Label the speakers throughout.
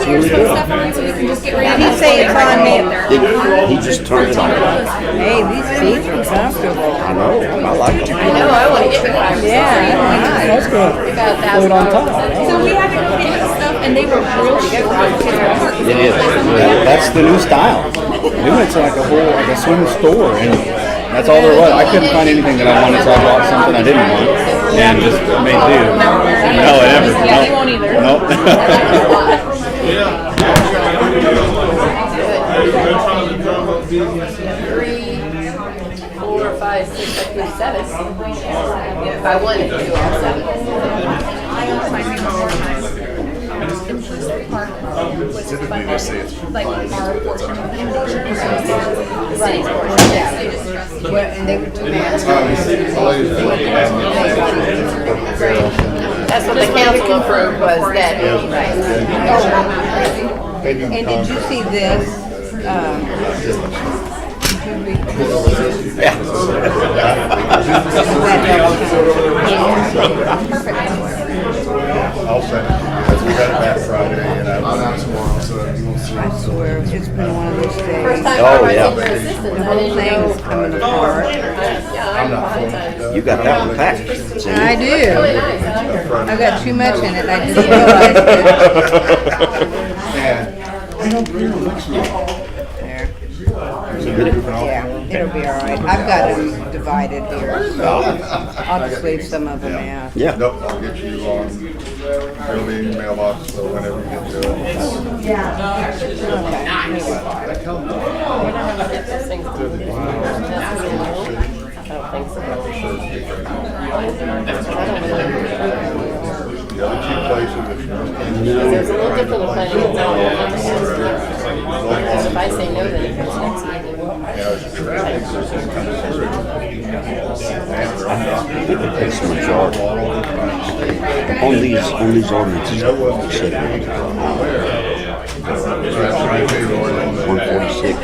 Speaker 1: here's some stuff on, so you can just get ready.
Speaker 2: Did he say it's on me?
Speaker 3: He just turned it on.
Speaker 2: Hey, these seats are comfortable.
Speaker 3: I know, I like them.
Speaker 1: No, I want to get the five.
Speaker 2: Yeah,
Speaker 4: That's good. Put it on top.
Speaker 1: So we had to go get his stuff, and they were real short.
Speaker 3: It is.
Speaker 4: That's the new style. New, it's like a whole, like a swim store, and
Speaker 3: That's all there was. I couldn't find anything that I wanted, so I bought something I didn't want and just made do. No, I never.
Speaker 1: Yeah, they won't either.
Speaker 3: Nope.
Speaker 1: Three, four, five, six, seven, seven. If I wanted to, all seven.
Speaker 5: Typically, they say it's
Speaker 1: Like our portion of the portion. City's portion, yeah, they just trust you.
Speaker 2: and they were
Speaker 1: That's what the council approved was that, right?
Speaker 2: And did you see this? uh,
Speaker 5: I'll send it. Because we had it back Friday and I. I'm out tomorrow, so you won't see
Speaker 2: I
Speaker 5: it.
Speaker 2: swear, it's been one of those days.
Speaker 1: time
Speaker 3: Oh, yeah.
Speaker 2: The whole thing's
Speaker 3: Oh,
Speaker 2: coming apart.
Speaker 5: I'm not phone.
Speaker 3: You got that one packed. see?
Speaker 2: I do. I've got too much in it, I just realized that.
Speaker 3: So
Speaker 5: I don't bring them next week.
Speaker 3: get it.
Speaker 2: Yeah, it'll be all right. I've got them divided here, so I'll just leave some of them out.
Speaker 3: Yeah.
Speaker 5: Nope, I'll get you on early mailbox, so whenever you get to it. The other two places, if you
Speaker 6: It's a little different with planning and zoning. Because if I say no, then it comes next meeting.
Speaker 3: It's the majority. On these, on these ordinances, it said one forty-six,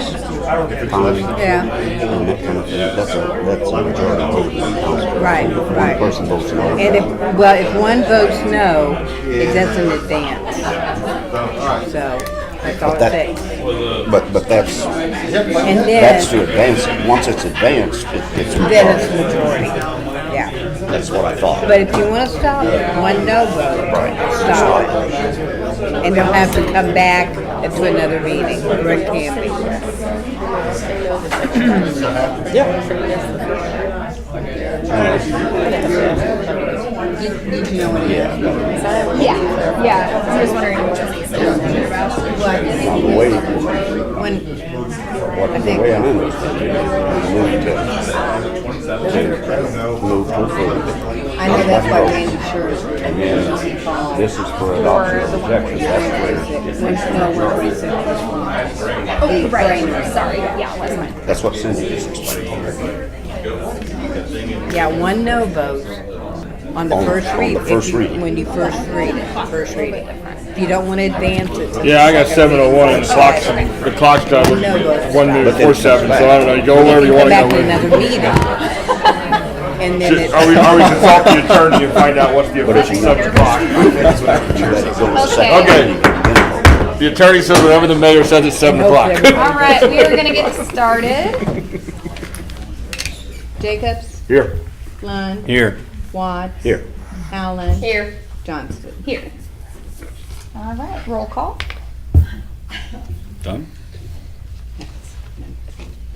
Speaker 3: pounding,
Speaker 2: Yeah,
Speaker 3: and that kind of thing. Um, That's a, that's a majority vote. in the council.
Speaker 2: right,
Speaker 3: One
Speaker 2: right.
Speaker 3: person votes no.
Speaker 2: And if, well, if one votes no, it doesn't advance. So, that's all it
Speaker 3: that-
Speaker 2: takes.
Speaker 3: But, but that's,
Speaker 2: And
Speaker 3: that's
Speaker 2: then,
Speaker 3: to advance it. Once it's advanced, it gets
Speaker 2: then it's
Speaker 3: majority.
Speaker 2: majority. Yeah.
Speaker 3: That's what I thought.
Speaker 2: But if you want to stop it, one no vote, stop it. And they'll have to come back to another meeting, or it can be.
Speaker 1: Yeah, yeah, I was wondering what you
Speaker 3: On the way, what,
Speaker 2: When,
Speaker 3: the way I'm in it, I moved to, to move to Florida.
Speaker 2: I know that's why we insurance
Speaker 3: And then this is for adoption or rejection, that's where,
Speaker 1: Oh, right, sorry, yeah, it was mine.
Speaker 3: that's what Cindy just explained.
Speaker 2: Yeah, one no vote on the
Speaker 3: On-
Speaker 2: first
Speaker 3: on
Speaker 2: read.
Speaker 3: the
Speaker 2: if
Speaker 3: first
Speaker 2: you-
Speaker 3: reading.
Speaker 2: When you first read it, first read it. If you don't want to advance it. to the
Speaker 7: Yeah, I got
Speaker 2: second
Speaker 7: seven oh one and the clock's,
Speaker 2: Okay.
Speaker 7: the clock's done, one minute
Speaker 3: But then
Speaker 7: four
Speaker 3: it's
Speaker 7: seven, so
Speaker 3: back.
Speaker 7: I don't know, you go wherever you
Speaker 2: Come
Speaker 7: wanna
Speaker 2: back
Speaker 7: go
Speaker 2: to another
Speaker 7: with.
Speaker 2: meeting. And then
Speaker 7: Just- Are we, are we to
Speaker 2: it's,
Speaker 7: talk to the attorney and find out what's the
Speaker 3: is
Speaker 7: official
Speaker 3: he
Speaker 7: seven o'clock?
Speaker 3: Okay.
Speaker 7: The attorney says whatever the mayor says it's seven o'clock.
Speaker 1: All right, we are gonna get started.
Speaker 2: Jacobs,
Speaker 7: Here.
Speaker 2: Lund,
Speaker 7: Here.
Speaker 2: Watts.
Speaker 3: Here.
Speaker 2: Howland.
Speaker 1: Here.
Speaker 2: Johnston.
Speaker 1: Here. All right, roll call.
Speaker 3: Done?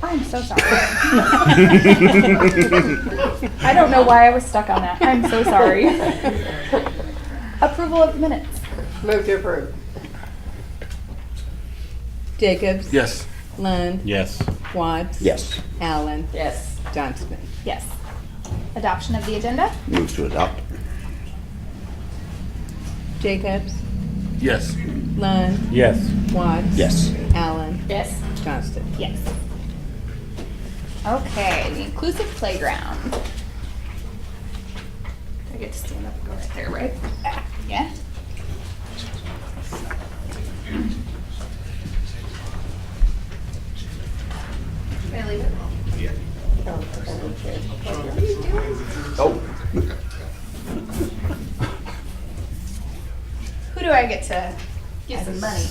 Speaker 1: I'm so sorry. I don't know why I was stuck on that. I'm so sorry. Approval of minutes.
Speaker 2: Move to approve. Jacobs.
Speaker 7: Yes.
Speaker 2: Lund.
Speaker 7: Yes.
Speaker 2: Watts.
Speaker 3: Yes,
Speaker 2: Allen.
Speaker 6: Yes.
Speaker 2: Johnston.
Speaker 1: Yes. Adoption of the agenda.
Speaker 3: move to adopt.
Speaker 2: Jacobs.
Speaker 7: Yes.
Speaker 2: Lund.
Speaker 7: Yes.
Speaker 2: Watts.
Speaker 3: Yes,
Speaker 2: Allen.
Speaker 6: Yes.
Speaker 2: Johnston.
Speaker 1: Yes. Okay, the inclusive playground. I get to stand up and go right there, right? Yeah.
Speaker 3: Oh.
Speaker 1: Who do I get to give some money?